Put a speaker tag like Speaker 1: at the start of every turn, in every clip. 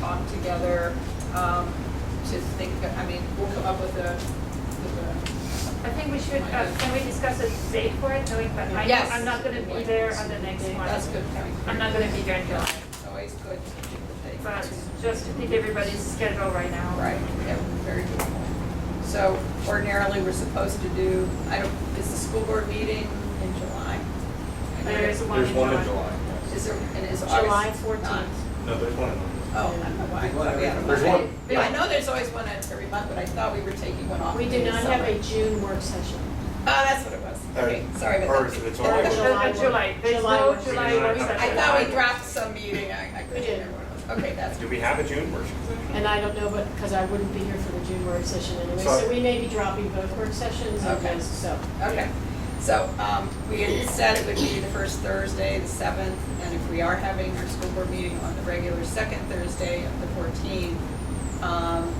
Speaker 1: talk together, um, to think, I mean, we'll come up with a, with
Speaker 2: I think we should, uh, can we discuss a date for it, knowing that I,
Speaker 1: Yes.
Speaker 2: I'm not gonna be there on the next
Speaker 1: a,
Speaker 2: one.
Speaker 1: that's good point.
Speaker 2: I'm not gonna be there in July,
Speaker 1: It's always good to pick the date.
Speaker 2: but just to pick everybody's schedule right now.
Speaker 1: Right, yeah, very good point. So ordinarily, we're supposed to do, I don't, is the school board meeting in July?
Speaker 2: There is one in
Speaker 3: There's
Speaker 2: July.
Speaker 3: one in July, yes.
Speaker 1: Is there, and is August?
Speaker 4: July
Speaker 1: not?
Speaker 4: fourteenth.
Speaker 3: No, there's one in August.
Speaker 1: Oh, I don't know why. I thought we had
Speaker 3: There's one.
Speaker 1: Yeah, I know there's always one at every month, but I thought we were taking one off.
Speaker 4: We
Speaker 1: in
Speaker 4: do
Speaker 1: the
Speaker 4: not have
Speaker 1: summer.
Speaker 4: a June work session.
Speaker 1: Oh, that's what it was. Okay, sorry
Speaker 3: Or
Speaker 1: about
Speaker 3: is
Speaker 1: that.
Speaker 3: it- it's
Speaker 4: Or
Speaker 3: always-
Speaker 2: Uh,
Speaker 4: July
Speaker 2: uh,
Speaker 4: one.
Speaker 2: July, there's
Speaker 4: July
Speaker 2: no
Speaker 4: one.
Speaker 2: July work session.
Speaker 1: I thought we dropped some meeting, I, I couldn't
Speaker 4: We did.
Speaker 1: remember what it was. Okay, that's.
Speaker 3: Do we have a June worship?
Speaker 4: And I don't know, but, because I wouldn't be here for the June work session anyway, so
Speaker 3: So-
Speaker 4: we may be dropping both work sessions and
Speaker 1: Okay.
Speaker 4: those, so.
Speaker 1: Okay, so, um, we had said it would be the first Thursday, the seventh, and if we are having our school board meeting on the regular second Thursday of the fourteenth, um,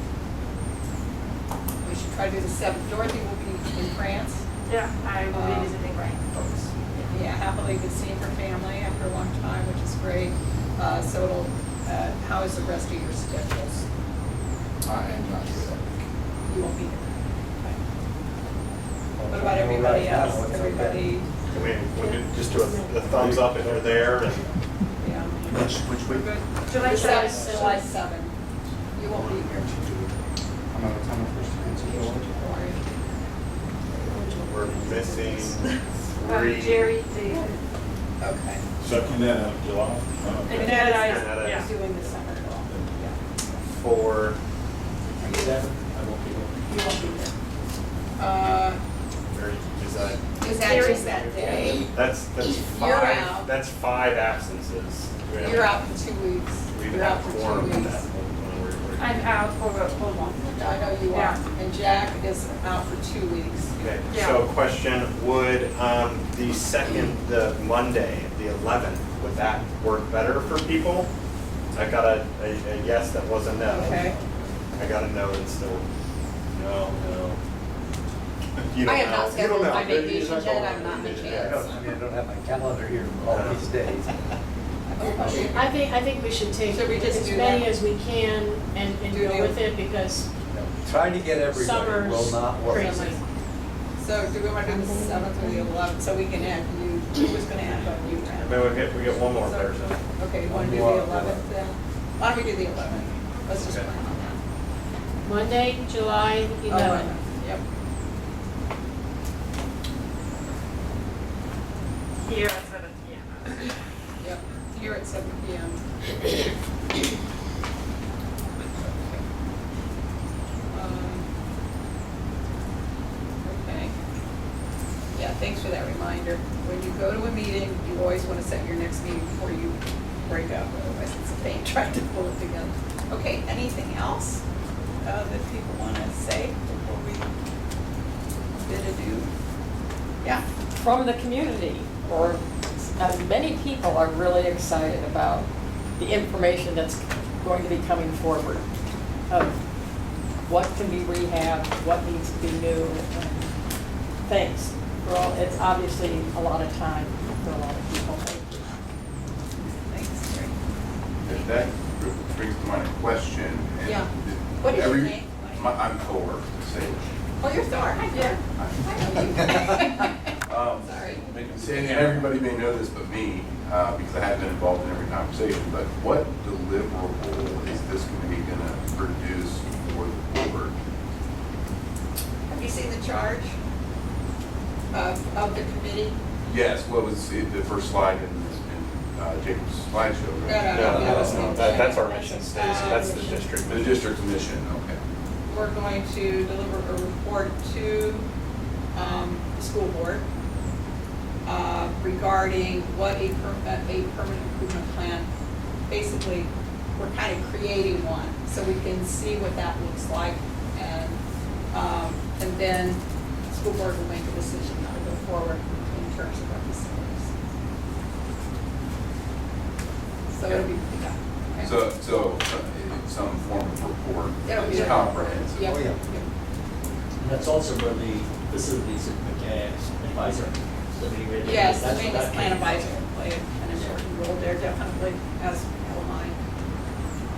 Speaker 1: we should try to do the seventh. Dorothy will be in France.
Speaker 2: Yeah, I will
Speaker 1: Um,
Speaker 2: be visiting Brian.
Speaker 1: Yeah, happily been seeing her family after a long time, which is great. Uh, so it'll, uh, how is the rest of your schedules?
Speaker 5: I am not sure.
Speaker 1: You won't be there. What about everybody else? Everybody,
Speaker 3: I mean, we could just do a a thumbs up if you're there and.
Speaker 1: yeah.
Speaker 6: Which, which
Speaker 1: We're
Speaker 6: week?
Speaker 1: good. July
Speaker 2: July seventh.
Speaker 1: seven. July seven. You won't be here.
Speaker 5: I'm out of town first.
Speaker 1: Don't worry.
Speaker 3: We're missing
Speaker 2: Um,
Speaker 1: Uh,
Speaker 3: three.
Speaker 2: Jerry, David.
Speaker 1: Okay.
Speaker 7: Second that of July.
Speaker 1: And
Speaker 2: And Ned,
Speaker 1: Ned
Speaker 2: I-
Speaker 3: Ned, I-
Speaker 2: yeah.
Speaker 1: Doing the summer call. Yeah.
Speaker 3: Four.
Speaker 1: Are you there? You won't be there. Uh,
Speaker 3: Or is that,
Speaker 1: is that just that day?
Speaker 3: that's, that's
Speaker 1: You're out.
Speaker 3: five, that's five absences. We have-
Speaker 1: You're out for two weeks.
Speaker 3: We even
Speaker 1: You're out
Speaker 3: have
Speaker 1: for
Speaker 3: quorum
Speaker 1: two
Speaker 3: at that
Speaker 1: weeks.
Speaker 3: point. when we're-
Speaker 2: I'm out for a whole month.
Speaker 1: I know you are.
Speaker 2: Yeah.
Speaker 1: And Jack is out for two weeks.
Speaker 3: Okay,
Speaker 2: Yeah.
Speaker 3: so question, would um, the second, the Monday, the 11th, would that work better for people? I got a, a a yes that was a no.
Speaker 1: Okay.
Speaker 3: I got a no that's still, no, no. You
Speaker 8: I
Speaker 3: don't
Speaker 8: have not
Speaker 3: know. You don't
Speaker 8: scheduled my
Speaker 3: know. Maybe you
Speaker 8: vacation
Speaker 3: just
Speaker 8: yet,
Speaker 3: don't
Speaker 8: I'm
Speaker 3: know.
Speaker 8: not in a
Speaker 3: Yeah.
Speaker 8: chance.
Speaker 5: I mean, I don't have my calendar here for all these days.
Speaker 4: I think, I think we should take
Speaker 1: Should we just
Speaker 4: as
Speaker 1: do
Speaker 4: many
Speaker 1: that?
Speaker 4: as we can and, and
Speaker 1: Do
Speaker 4: go
Speaker 1: the-
Speaker 4: with it, because
Speaker 5: Trying to get everybody will
Speaker 4: summer's
Speaker 5: not work.
Speaker 4: crazy.
Speaker 1: So do we want to do the seventh or the eleventh? So we can add you, who was going to add on you? Brad?
Speaker 3: Maybe we get, we get one more person.
Speaker 1: Okay, you want to do the eleventh then? Why don't we do the eleventh? Let's just
Speaker 3: Okay.
Speaker 1: plan on that.
Speaker 4: Monday, July
Speaker 1: Oh,
Speaker 4: eleventh.
Speaker 1: Yep.
Speaker 2: here at seven P M.
Speaker 1: Yep, here at seven P M. Um, Okay. Yeah, thanks for that reminder. When you go to a meeting, you always want to set your next meeting before you break up, otherwise it's a pain trying to pull it together. Okay, anything else uh, that people want to say before we bid adieu? Yeah?
Speaker 9: from the community, or as many people are really excited about the information that's going to be coming forward of what can be rehabbed, what needs to be new, and things. Well, it's obviously a lot of time for a lot of people.
Speaker 1: Thanks, Terry.
Speaker 10: That- That brings to mind a question. and
Speaker 1: Yeah. What is your
Speaker 10: every-
Speaker 1: name?
Speaker 10: my- I'm Thor, Sage.
Speaker 1: Oh, you're Thor, hi Thor. Hi.
Speaker 10: Um,
Speaker 1: Sorry.
Speaker 10: And everybody may know this but me, uh, because I have been involved in every conversation, but what deliverable is this committee going to produce for the board?
Speaker 1: Have you seen the charge of, of the committee?
Speaker 10: Yes, what was it- the first slide in in, uh, Jacob's slideshow?
Speaker 3: No,
Speaker 10: right?
Speaker 1: that
Speaker 3: no,
Speaker 1: was
Speaker 3: no,
Speaker 1: me.
Speaker 3: that, that's our mission
Speaker 8: Uh,
Speaker 3: statement, that's the
Speaker 1: Um,
Speaker 3: district
Speaker 10: The
Speaker 3: mission.
Speaker 10: district commission, okay.
Speaker 1: We're going to deliver a report to, um, the school board, uh, regarding what a per, a a permanent improvement plan, basically, we're kind of creating one, so we can see what that looks like, and, um, and then the school board will make a decision how to go forward in terms of our facilities. So it'll be, yeah. okay.
Speaker 10: So, so uh, some form of report
Speaker 1: That'll be
Speaker 10: is
Speaker 1: it.
Speaker 10: comprehensive.
Speaker 1: Yep,
Speaker 5: Oh, yeah.
Speaker 1: yep.
Speaker 11: And that's also where the facilities advisor, the meeting.
Speaker 1: Yes, the maintenance plan advisor will play an important role there definitely, as